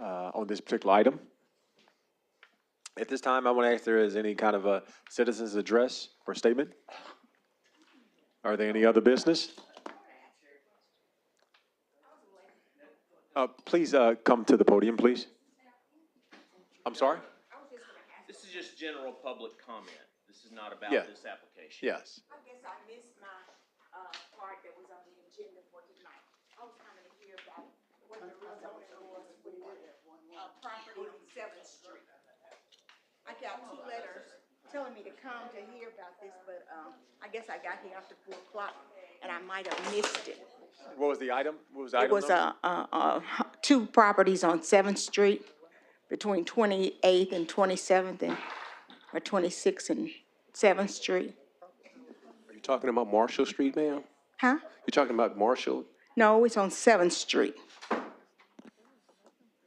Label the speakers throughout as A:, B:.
A: uh, on this particular item. At this time, I want to ask if there is any kind of a citizen's address or statement. Are there any other business? Uh, Please uh, come to the podium, please. I'm sorry?
B: This is just general public comment. This is not about
A: Yeah.
B: this application.
A: Yes.
C: I guess I missed my, uh, part that was on the agenda for tonight. I was coming to hear about what the rezoning was for, uh, property on Seventh Street. I got two letters telling me to come to hear about this, but, um, I guess I got here after four o'clock, and I might have missed it.
A: What was the item? What was the
C: It
A: item
C: was,
A: number?
C: uh, uh, uh, two properties on Seventh Street between Twenty-Eighth and Twenty-Seventh and, or Twenty-Sixth and Seventh Street. uh,
D: You're talking about Marshall Street, ma'am?
C: Huh?
D: You're talking about Marshall?
C: No, it's on Seventh Street.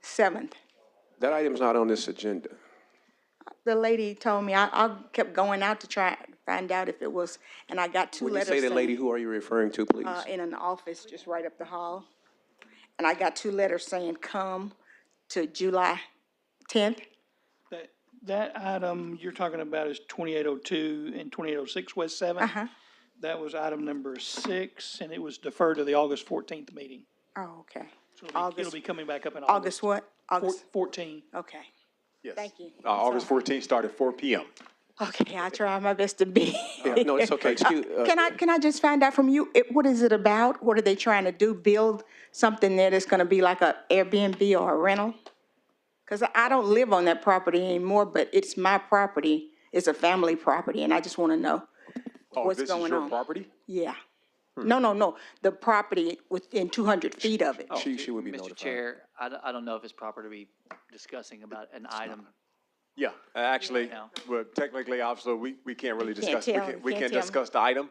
C: Seventh.
D: That item's not on this agenda.
C: The lady told me, I, I kept going out to try, and find out if it was, and I got two
D: When you
C: letters.
D: say the
C: saying,
D: lady, who are you referring to, please?
C: uh, In an office just right up the hall. And I got two letters saying, come to July tenth.
E: That, that item you're talking about is twenty-eight oh two and twenty-eight oh six West 7th
C: Uh-huh.
E: That was item number six, and it was deferred to the August fourteenth meeting.
C: Oh, okay.
E: So it'll be- it'll
C: August,
E: be coming back up in
C: August
E: August.
C: what? August,
E: Fourteen.
C: okay.
A: Yes.
C: thank you.
A: Uh, August 14th, started 4 PM.
C: Okay, I try my best to be.
D: Yeah, no, it's okay. Excuse- uh,
C: Can I, can I just find out from you, it, what is it about? What are they trying to do? Build something there that's gonna be like a Airbnb or a rental? Cause I- I don't live on that property anymore, but it's my property. It's a family property and I just wanna know.
A: Oh,
C: What's
A: this is
C: going
A: your
C: on?
A: property?
C: Yeah.
D: Hmm.
C: No, no, no, the property within two hundred feet of it.
D: She, she would be
F: Mr.
D: notified.
F: Chair, I, d- I don't know if it's proper to be discussing about an item.
A: Yeah, uh, actually,
F: No.
A: well, technically, obviously, we, we can't really
C: can't
A: discuss, we
C: tell,
A: can't,
C: you
A: we
C: can't
A: can't
C: tell.
A: discuss the item.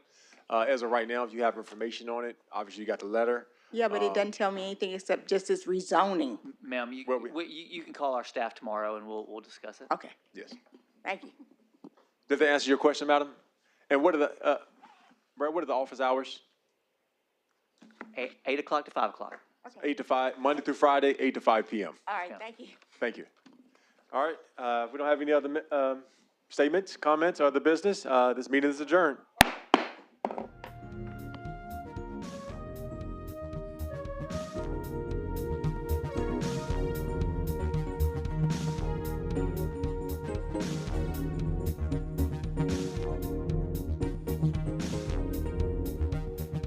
A: Uh, as of right now, if you have information on it, obviously you got the letter.
C: Yeah, but it
D: oh.
C: doesn't tell me anything except just it's rezoning.
D: Mm-hmm.
F: Ma'am, you,
A: Well, we-
F: we- you, you can call our staff tomorrow and we'll, we'll discuss it.
C: Okay,
A: Yes.
C: thank you.
A: Did they answer your question, madam? And what are the, uh, Brad, what are the office hours?
F: Eight, eight o'clock to five o'clock.
A: Eight to five, Monday through Friday, eight to five PM.
C: All right, thank you.
A: Thank you. All right, uh, if we don't have any other, mi- um, statements, comments, or other business, uh, this meeting is adjourned.